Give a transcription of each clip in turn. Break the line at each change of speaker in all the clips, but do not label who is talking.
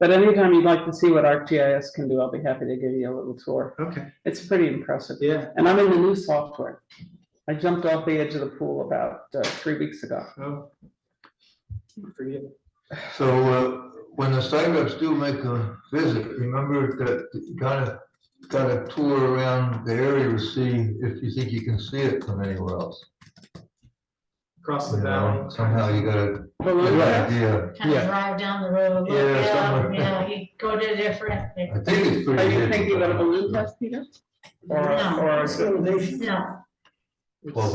But anytime you'd like to see what ArcGIS can do, I'll be happy to give you a little tour.
Okay,
It's pretty impressive.
yeah,
And I'm in the new software. I jumped off the edge of the pool about uh, three weeks ago.
oh. Forget.
So uh, when the site reps do make a visit, remember that you gotta, gotta tour around the area to see if you think you can see it from anywhere else.
across the
You know,
valley.
Somehow you gotta,
Below
you
that,
gotta, yeah,
kind of
Yeah.
drive down the road, look
Yeah,
down,
somewhere.
you know, you go to different,
I think it's pretty.
are you
hidden,
thinking
but-
of a balloon test, Peter? Or,
No.
or,
no,
Twelve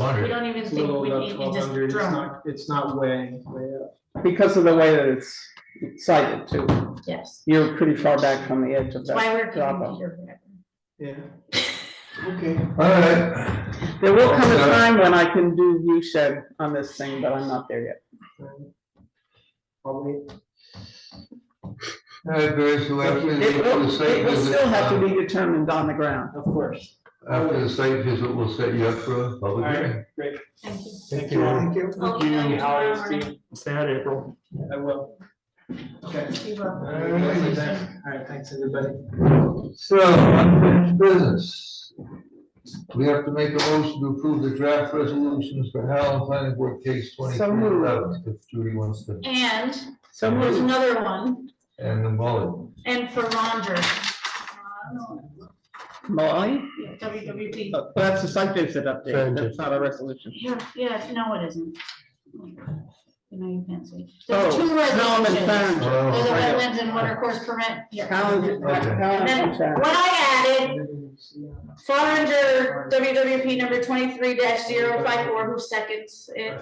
It's
we
hundred,
don't even
it's a
think
little
we
above
need to
twelve
just
hundred, it's
drone,
not, it's not way, way up.
because of the way that it's sighted too.
yes.
You're pretty far back from the edge of
That's why we're
that drop
keeping
off.
here forever.
Yeah,
okay, all right.
There will come a
Okay.
time when I can do view shed on this thing, but I'm not there yet.
probably.
All right, Barry, so after the,
It
after the
will,
site
it will
visit.
still have to
uh,
be determined on the ground.
Of course.
After the site visit, we'll set you up for a
All
public hearing.
right, great.
Thank you.
Thank you. Thank you.
I'll email you
How
tomorrow
is the-
morning.
Sad April.
I will. Okay.
You will.
All right, thanks, everybody.
So, unfinished business. We have to make a motion to approve the draft resolutions for Howland Planning Board case
So
twenty-three
moved.
eleven, if Judy wants to,
And
So
there's
moved.
another one,
and then Molly.
and for Uh, Roger.
Molly?
WWP,
Oh, That's a site visit update.
Thank you.
That's not a resolution.
yeah, yeah, no, it isn't. You know, you can't see.
Oh,
There's two
Howland and
resolutions.
Farrington.
Oh,
There's a
right.
wetlands and water course permit here.
Howland,
Okay.
Howland
then-
and Farrington.
What I added Fall under WWP number twenty-three 54 who seconds it?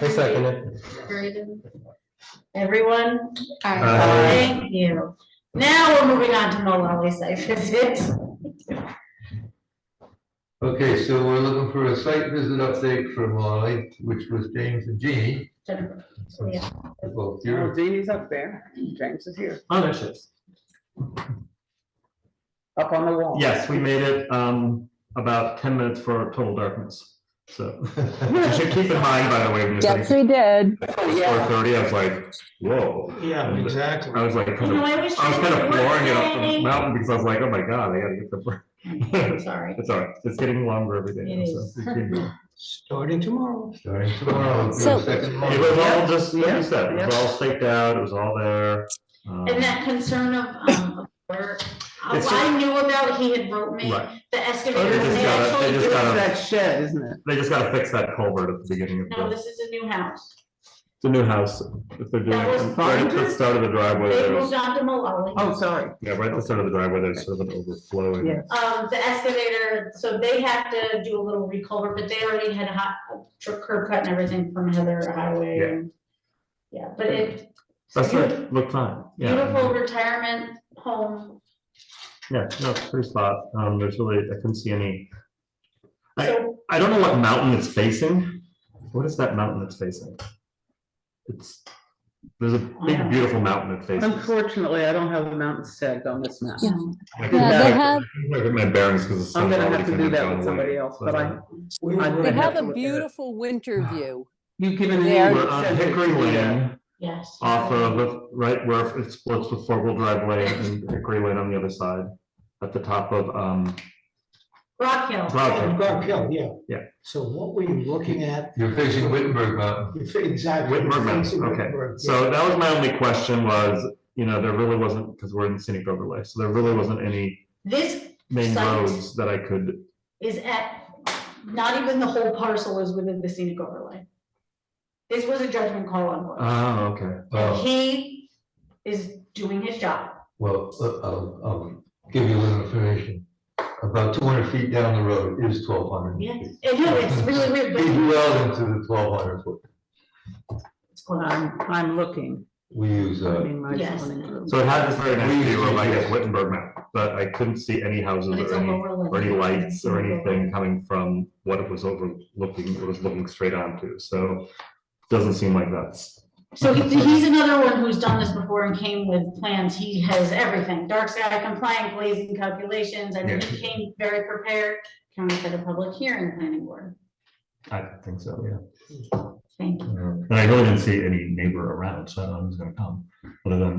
I second it.
Everyone?
Aye.
Thank you. Now we're moving on to Malawi site visit.
Okay, so we're looking for a site visit update for Molly, which was James and Jeannie.
Yeah.
Both
Oh,
here.
Jeannie's up there. James is here,
Oh, there she is.
up on the wall.
Yes, we made it, um, about ten minutes for total darkness,
Oh.
so. You should keep in mind, by the way, when you're
Yes,
four
we did.
Yeah.
thirty, I was like, whoa.
Yeah, exactly.
I was like, kind
You know,
of-
I was
I was
trying
kind
to
of flooring it up the
work
mountain because I was like, oh my god, I gotta get the,
today. Sorry.
it's all right, it's getting longer every day.
It
so
is.
we keep going.
Starting tomorrow.
Starting tomorrow, with your
So-
second
It was
Molly.
all just, like
Yeah,
you said, it was all staked out, it was all there. um,
And that concern of, um, of where, uh,
It's
I knew about, he had wrote me,
Right,
the
Oh,
excavator,
they just
they
got it, they
actually
just
It's
do
got
it.
it.
that shed, isn't it?
they just gotta fix that culvert at the beginning of the.
No, this is a new house.
The new house, if they're doing,
That was
it right at the
farther.
start of the driveway,
They
there's,
moved on to Malawi.
Oh, sorry. Uh,
yeah, right at the start of the driveway, there's sort of an overflowing.
Yeah.
Um, the excavator, so they have to do a little recover, but they already had hot, tr- curb cut and everything from Heather Highway.
Yeah.
and- Yeah, but it.
That's right, look fine,
Beautiful
yeah,
retirement home,
yeah, no, it's a pretty spot, um, there's really, I couldn't see any, I-
so
I don't know what mountain it's facing. What is that mountain it's facing? It's, there's a big, beautiful mountain it faces.
Unfortunately, I don't have the mountain stag on this map.
Yeah.
I
Yeah, they
can't
have-
get my bearings because the
I'm
sun's
gonna
already
have to
kind
do
of
that
gone
with somebody
away. uh,
else, but I,
I
They
They
have
have
to
a
look at it.
beautiful winter view.
you've given me.
There.
We're on Hickory Lane.
yes.
off of, right where it splits with four-wheel drive lane and Hickory Lane on the other side, at the top of, um,
Rock Hill.
Rock Hill.
Rock Hill, yeah.
Yeah.
So what were you looking at?
You're facing Wittenberg Mountain.
You fi- Exactly.
Whitmer Mountain, okay. So that was my only question was, you know, there really wasn't, because we're in scenic overlay, so there really wasn't any
This
main
Site.
roads that I could,
is at, not even the whole parcel is within the scenic overlay. This was a judgment call on one.
oh, okay.
Uh,
He is doing his job.
Well, uh, I'll, I'll give you a little information. About two hundred feet down the road is twelve hundred.
Yeah, and no, it's really weird,
He's
but
uh,
well into the twelve hundred foot.
it's going on.
I'm, I'm looking.
We use,
I
uh,
mean, my
Yes.
zoning room.
So it had this very nice view of like a Wittenberg mountain, but I couldn't see any houses
But it's
or
a
any,
lower
or any
level.
lights or anything coming from what it was overlooking, it was looking straight onto, so doesn't seem like that's
So he- he's another one who's done this before and came with plans. He has everything, dark sky compliant, glazing calculations, I mean, he came very prepared. County set a public hearing planning board.
I don't think so, yeah.
Thank you.
And I really didn't see any neighbor around, so I don't know who's gonna come, other than